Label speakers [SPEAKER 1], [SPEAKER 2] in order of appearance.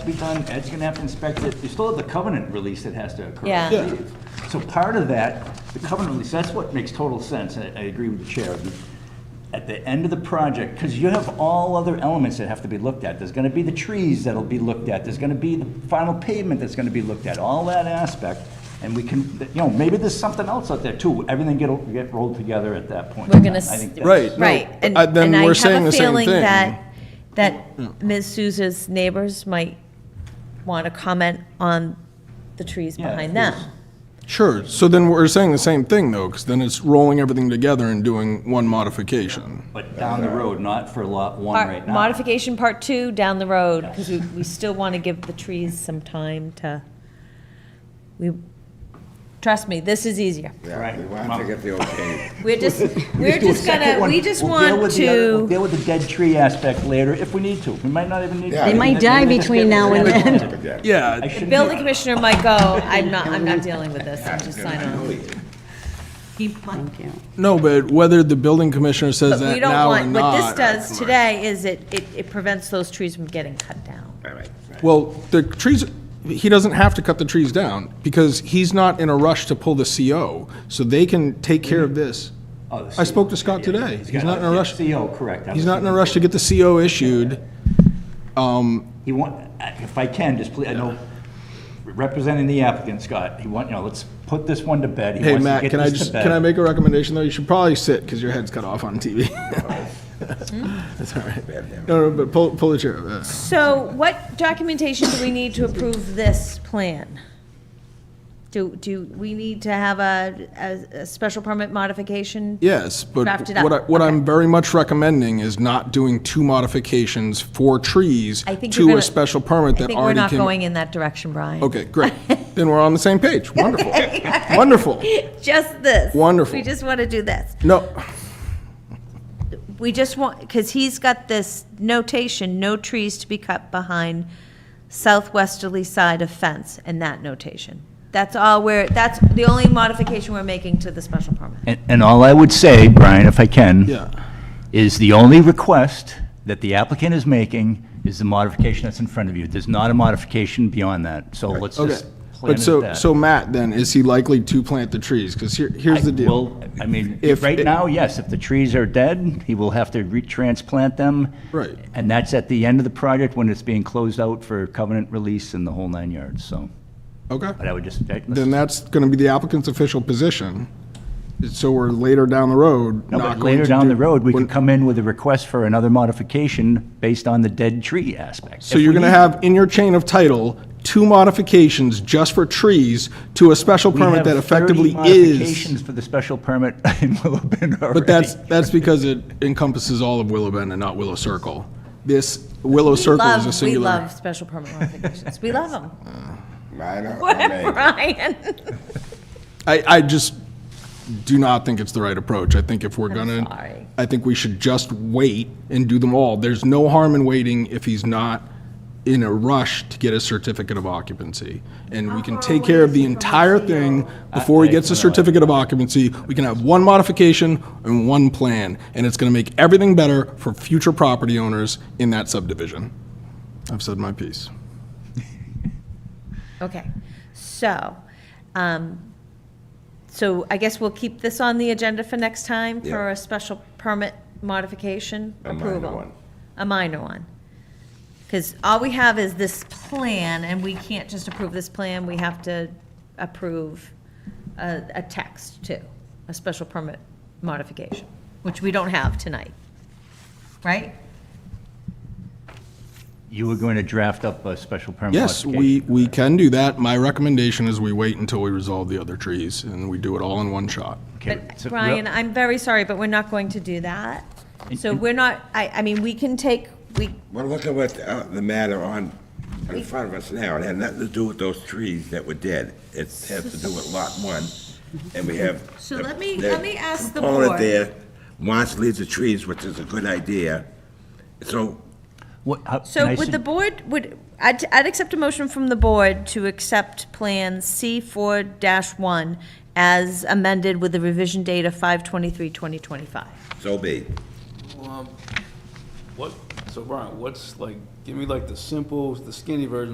[SPEAKER 1] be done, Ed's gonna have to inspect it, you still have the covenant release that has to occur. I
[SPEAKER 2] Yeah. Yeah.
[SPEAKER 1] believe. So part of that, the covenant release, that's what makes total sense, and I I agree with the chair. At the end of the project, because you have all other elements that have to be looked at, there's gonna be the trees that'll be looked at, there's gonna be the final pavement that's gonna be looked at, all that aspect, and we can, you know, maybe there's something else out there too, everything get, get rolled together at that point.
[SPEAKER 2] We're gonna
[SPEAKER 1] I
[SPEAKER 2] s-
[SPEAKER 1] think that's-
[SPEAKER 3] Right. no,
[SPEAKER 2] Right, and,
[SPEAKER 3] I- then
[SPEAKER 2] and I
[SPEAKER 3] we're
[SPEAKER 2] have
[SPEAKER 3] saying
[SPEAKER 2] a
[SPEAKER 3] the same
[SPEAKER 2] feeling
[SPEAKER 3] thing. Hmm.
[SPEAKER 2] that, that Ms. Souza's neighbors might want to comment on the trees
[SPEAKER 1] Yeah, of
[SPEAKER 2] behind them.
[SPEAKER 1] course.
[SPEAKER 3] Sure, so then we're saying the same thing, though, because then it's rolling everything together and doing one modification.
[SPEAKER 1] But down the road, not for lot one
[SPEAKER 2] Part-
[SPEAKER 1] right now.
[SPEAKER 2] Modification part two down the road, because we, we still want to give the trees some time to, we, trust me, this is easier.
[SPEAKER 1] Right.
[SPEAKER 4] Yeah, we want to get the okay.
[SPEAKER 2] We're just, we're
[SPEAKER 1] do a
[SPEAKER 2] just
[SPEAKER 1] second
[SPEAKER 2] gonna,
[SPEAKER 1] one.
[SPEAKER 2] we just
[SPEAKER 1] We'll deal
[SPEAKER 2] want
[SPEAKER 1] with the other- we'll
[SPEAKER 2] to,
[SPEAKER 1] Deal with the dead tree aspect later, if we need to. We might not even need.
[SPEAKER 4] Yeah. They might
[SPEAKER 5] die between now and
[SPEAKER 4] But
[SPEAKER 1] then.
[SPEAKER 4] yeah,
[SPEAKER 3] Yeah,
[SPEAKER 2] the building commissioner might go, I'm not, I'm not dealing with this, I'm just signing on.
[SPEAKER 5] Thank you.
[SPEAKER 3] no, but whether the building commissioner
[SPEAKER 2] But
[SPEAKER 3] says
[SPEAKER 2] we
[SPEAKER 3] that
[SPEAKER 2] don't
[SPEAKER 3] now or
[SPEAKER 2] want, what this
[SPEAKER 3] not.
[SPEAKER 2] does today is it, it it prevents those trees from getting cut down.
[SPEAKER 3] Well, the trees, he doesn't have to cut the trees down, because he's not in a rush to pull the CO, so they can take care of this.
[SPEAKER 1] oh, E
[SPEAKER 3] I spoke to Scott today. He's not in a rush,
[SPEAKER 1] CO, E correct. I
[SPEAKER 3] he's
[SPEAKER 1] was
[SPEAKER 3] not in a
[SPEAKER 1] thinking-
[SPEAKER 3] rush to get the CO issued.
[SPEAKER 1] He want, if I can, just please, I know, representing the applicant, Scott, he want, you know, let's put this one to bed. He
[SPEAKER 3] Hey,
[SPEAKER 1] wants to
[SPEAKER 3] Matt,
[SPEAKER 1] get
[SPEAKER 3] can I
[SPEAKER 1] this to
[SPEAKER 3] just,
[SPEAKER 1] bed.
[SPEAKER 3] can I make a recommendation, though? You should probably sit, because your head's cut off on TV. That's all right. No, no, but pull, pull the chair. up.
[SPEAKER 2] So what documentation do we need to approve this plan? Do, do we need to have a, a, a special permit modification?
[SPEAKER 3] Yes, but
[SPEAKER 2] Draft it
[SPEAKER 3] what I,
[SPEAKER 2] up,
[SPEAKER 3] what
[SPEAKER 2] okay.
[SPEAKER 3] I'm very much recommending is not doing two modifications for trees
[SPEAKER 2] I think you're
[SPEAKER 3] to
[SPEAKER 2] gonna-
[SPEAKER 3] a special permit
[SPEAKER 2] I
[SPEAKER 3] that
[SPEAKER 2] think we're
[SPEAKER 3] already
[SPEAKER 2] not
[SPEAKER 3] came.
[SPEAKER 2] going in that direction, Brian.
[SPEAKER 3] Okay, great. Then we're on the same page. Wonderful. Wonderful.
[SPEAKER 2] Just this.
[SPEAKER 3] Wonderful.
[SPEAKER 2] We just want to do this.
[SPEAKER 3] No,
[SPEAKER 2] We just want, because he's got this notation, no trees to be cut behind southwesterly side of fence, and that notation. That's all we're, that's the only modification we're making to the special permit.
[SPEAKER 1] And, and all I would say, Brian, if I can.
[SPEAKER 3] Yeah.
[SPEAKER 1] Is the only request that the applicant is making is the modification that's in front of you. There's not a modification beyond that, so let's
[SPEAKER 3] okay.
[SPEAKER 1] just plan it
[SPEAKER 3] But
[SPEAKER 1] at
[SPEAKER 3] so,
[SPEAKER 1] that.
[SPEAKER 3] so Matt, then, is he likely to plant the trees? Because here, here's the deal.
[SPEAKER 1] Well, I mean,
[SPEAKER 3] If
[SPEAKER 1] right
[SPEAKER 3] it-
[SPEAKER 1] now, yes, if the trees are dead, he will have to retransplant them.
[SPEAKER 3] Right.
[SPEAKER 1] And that's at the end of the project when it's being closed out for covenant release and the whole nine yards, so.
[SPEAKER 3] Okay.
[SPEAKER 1] But I would just, I-
[SPEAKER 3] Then that's going to be the applicant's official position. So we're later down the road,
[SPEAKER 1] no,
[SPEAKER 3] not
[SPEAKER 1] but
[SPEAKER 3] going
[SPEAKER 1] later
[SPEAKER 3] to
[SPEAKER 1] down
[SPEAKER 3] do-
[SPEAKER 1] the road, we
[SPEAKER 3] when-
[SPEAKER 1] could come in with a request for another modification based on the dead tree aspect.
[SPEAKER 3] So you're going to have in your chain of title, two modifications just for trees to a special permit that effectively is.
[SPEAKER 1] Modifications for the special permit in Willow Bend already.
[SPEAKER 3] But that's, that's because it encompasses all of Willow Bend and not Willow Circle. This Willow Circle is
[SPEAKER 2] Love-
[SPEAKER 3] a singular.
[SPEAKER 2] We love special permit modifications. We love them.
[SPEAKER 4] mine are amazing.
[SPEAKER 2] Brian.
[SPEAKER 3] I, I just do not think it's the right approach. I think if we're
[SPEAKER 2] sorry.
[SPEAKER 3] gonna, I think we should just wait and do them all. There's no harm in waiting if he's not in a rush to get a certificate of occupancy. And we can take care of the entire thing before he gets a certificate of occupancy. We can have one modification and one plan, and it's gonna make everything better for future property owners in that subdivision. I've said my piece.
[SPEAKER 2] Okay, so, um, so I guess we'll keep this on the agenda for next time for
[SPEAKER 4] Yeah.
[SPEAKER 2] a special permit modification
[SPEAKER 4] A minor
[SPEAKER 2] approval.
[SPEAKER 4] one.
[SPEAKER 2] A minor one. Because all we have is this plan, and we can't just approve this plan, we have to approve a, a text too, a special permit modification, which we don't have tonight, right?
[SPEAKER 1] You were going to draft up a special permit
[SPEAKER 3] Yes,
[SPEAKER 1] modification.
[SPEAKER 3] we, we can do that. My recommendation is we wait until we resolve the other trees, and we do it all in one shot.
[SPEAKER 1] Okay,
[SPEAKER 2] But
[SPEAKER 1] so-
[SPEAKER 2] Brian, I'm very sorry, but we're not going to do that. So we're not, I, I mean, we can take, we,
[SPEAKER 4] Well, look at what uh, the matter on, in front of us now, it had nothing to do with those trees that were dead. It has to do with lot one, and we have.
[SPEAKER 2] So
[SPEAKER 4] the-
[SPEAKER 2] let me-
[SPEAKER 4] the
[SPEAKER 2] let me ask the
[SPEAKER 4] component
[SPEAKER 2] board.
[SPEAKER 4] there wants to leave the trees, which is a good idea. So
[SPEAKER 1] What- how- can
[SPEAKER 2] so
[SPEAKER 1] I
[SPEAKER 2] would
[SPEAKER 1] sug-
[SPEAKER 2] the board, would, I'd, I'd accept a motion from the board to accept Plan C four dash one as amended with the revision date of five twenty-three, twenty twenty-five.
[SPEAKER 4] So be.
[SPEAKER 6] Um, What, so Brian, what's like, give me like the simple, the skinny version